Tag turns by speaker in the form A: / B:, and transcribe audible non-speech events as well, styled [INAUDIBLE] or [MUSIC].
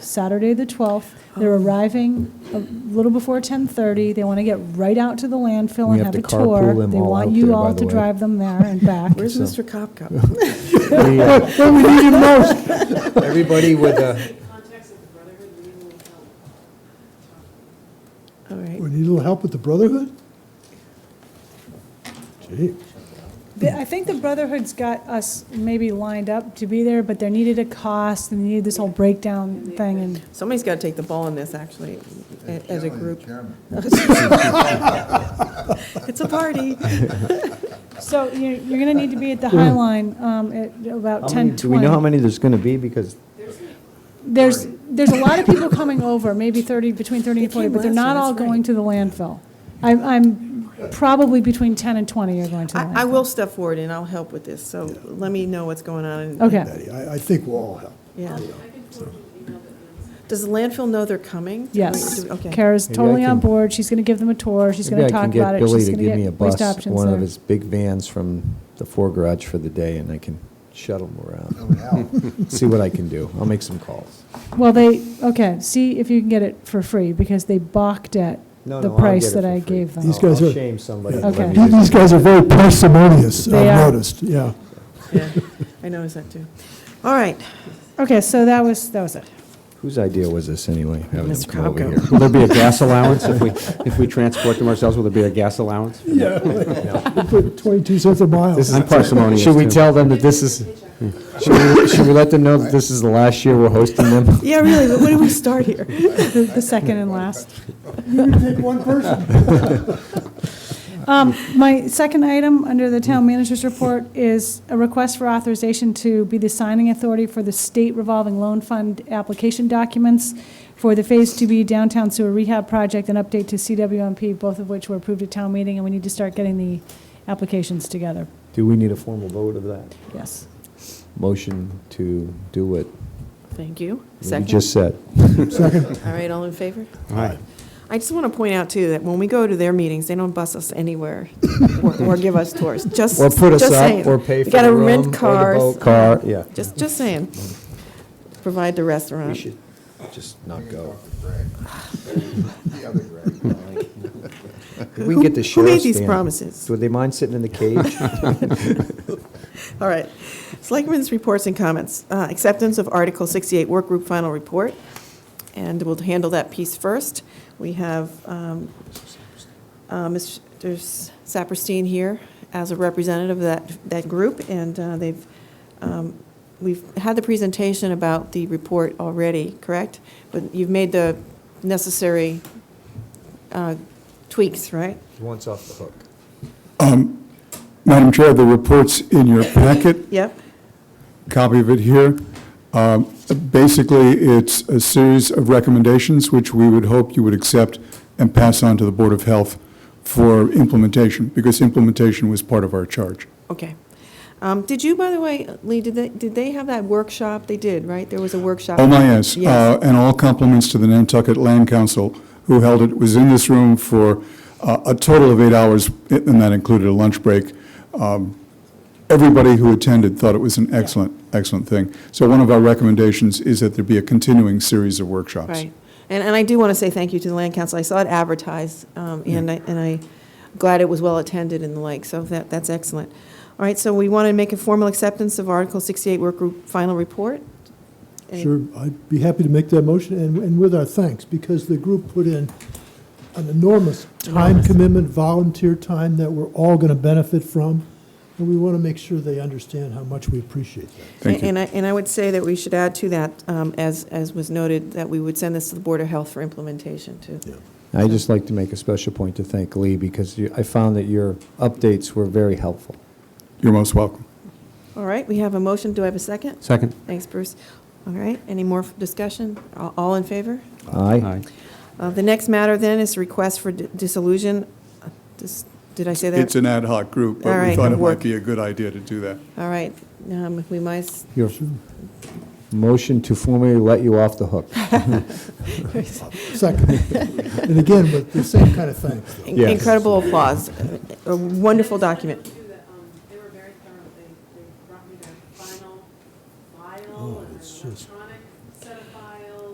A: Saturday, the 12th. They're
B: Oh.
A: arriving a little before 10:30. They want to get right out to the landfill
B: We
A: and
B: have
A: have a
B: to carpool
A: tour.
B: them
A: They
B: all
A: want
B: out
A: you
B: there, by
A: all
B: the
A: to
B: way.
A: drive them there and back. [LAUGHS]
C: Where's
B: So-
C: Mr. Kopka?
B: [LAUGHS] We, uh, [LAUGHS] Everybody with a,
C: All right.
D: We need a little help with the Brotherhood? Gee,
A: The- I think the Brotherhood's got us maybe lined up to be there, but they needed a cost and they needed this whole breakdown thing and
C: Somebody's got to take the ball on this, actually, a- as a group. [LAUGHS] It's a party.
A: So you- you're going to need to be at the High Line um, at about
B: Hmm. how many-
A: 10:20.
B: do we know how many there's going to be? Because
A: There's, there's a lot of people coming over, maybe 30, between 30 and
C: They
A: 40,
C: came
A: but they're
C: last
A: not
C: time,
A: all
C: that's right.
A: going to the landfill. I'm, I'm probably between 10 and 20 are going to the landfill.
C: I, I will step forward and I'll help with this, so let me know what's going on. and-
A: Okay,
D: Betty, I, I think we'll all help.
C: Yeah. Does the landfill know they're coming? Do we-
A: yes.
C: do we- Okay.
A: Kara's
B: Maybe I
A: totally on
B: can-
A: board, she's going to give them a tour, she's going
B: maybe I
A: to
B: can
A: talk about
B: get
A: it.
B: Billy
A: She's
B: to
A: gonna
B: give me a
A: get waste
B: bus,
A: options
B: one of
A: there.
B: his big vans from the fore garage for the day, and I can shuttle them
D: Oh,
B: around, [LAUGHS] see what I can do. I'll make some calls.
A: Well, they, okay, see if you can get it for free, because they balked at
B: No,
A: the
B: no, I'll
A: price
B: get it
A: that
B: for
A: I
B: free.
A: gave them.
D: These
B: I'll-
D: guys
B: I'll
D: are-
B: shame somebody.
D: yeah.
B: to let me
A: Okay.
D: These
A: [LAUGHS]
B: use
D: these
B: it.
D: guys are very parsimonious,
A: They are.
D: I've noticed, yeah.
C: Yeah, I noticed that too. All right,
A: Okay, so that was, that was it.
B: Whose idea was this, anyway? having them
C: Mr.
B: come over
C: Krabko.
B: here?
E: Will there be a
B: [LAUGHS]
E: gas allowance if we, if we transport them ourselves? Will there be a gas allowance?
D: They put 22 cents a mile.
B: This is-
E: I'm parsimonious,
B: Should we
E: too.
B: tell them that this is, should we, should we let them know that this is the last year we're hosting them?
C: yeah, really, but when do we start here?
A: The the second and last.
D: Take one person.
B: [LAUGHS]
A: Um, My second item under the town manager's report is a request for authorization to be the signing authority for the state revolving loan fund application documents for the Phase 2B downtown sewer rehab project and update to CWMP, both of which were approved at town meeting, and we need to start getting the applications together.
B: Do we need a formal vote of that?
A: Yes.
B: Motion to do what
C: Thank you.
B: you
C: Second.
B: just said.
C: All right, all in favor?
E: Aye.
C: I just want to point out, too, that when we go to their meetings, they don't bus us
B: [LAUGHS]
C: anywhere or- or give us tours, just,
B: Or put us
C: just
B: up,
C: saying.
B: or pay
C: We
B: for
C: gotta
B: the room,
C: rent
B: or the
C: cars.
B: boat car, yeah.
C: Just, just saying. Provide the
B: We
C: restaurant.
B: should just not go. [LAUGHS] Could we
C: Who-
B: get the
C: who
B: sheriff's
C: made these
B: van?
C: promises?
B: Would they mind sitting in the cage?
C: All right. Selectmen's reports and comments. Uh, Acceptance of Article 68 Work Group Final Report, and we'll handle that piece first. We have um, uh, Mr. Saperstein here as a representative of that, that group, and uh, they've, um, we've had the presentation about the report already, correct? But you've made the necessary uh, tweaks, right?
B: [LAUGHS] He wants off the hook.
F: Madam Chair, the report's in your packet,
C: Yep,
F: copy of it here. Um, Basically, it's a series of recommendations which we would hope you would accept and pass on to the Board of Health for implementation, because implementation was part of our charge.
C: okay. Um, Did you, by the way, Lee, did they, did they have that workshop? They did, right? There was a workshop.
F: Oh, my, yes.
C: Yes.
F: Uh, And all compliments to the Nantucket Land Council, who held it, was in this room for uh, a total of eight hours, and that included a lunch break. Um, Everybody who attended thought it was an excellent, excellent thing. So one of our recommendations is that there be a continuing series of workshops.
C: Right. And, and I do want to say thank you to the Land Council. I saw it advertised, um, and I, and I'm glad it was well-attended and the like, so that, that's excellent. All right, so we want to make a formal acceptance of Article 68 Work Group Final Report? Any-
D: Sure, I'd be happy to make that motion, and, and with our thanks, because the group put in an enormous time commitment, volunteer time that we're all going to benefit from, and we want to make sure they understand how much we appreciate that.
F: Thank you.
C: And I, and I would say that we should add to that, um, as, as was noted, that we would send this to the Board of Health for implementation, too.
B: i just like to make a special point to thank Lee, because you- I found that your updates were very helpful.
F: You're most welcome.
C: All right, we have a motion. Do I have a second?
E: Second?
C: Thanks, Bruce. All right, any more discussion? All- All in favor?
B: Aye?
C: Uh, The next matter then is request for di- dissolution. Uh, dis- Did I say that?
F: It's an ad hoc group,
C: All
F: but
C: right,
F: we thought
C: good
F: it
C: work.
F: might be a good idea to do that.
C: All right, um, we must,
B: Your motion to formally let you off the hook.
A: [LAUGHS]
D: Second, and again, with the same kind of thanks.
C: in-
B: Yes.
C: incredible applause, a Uh, wonderful document.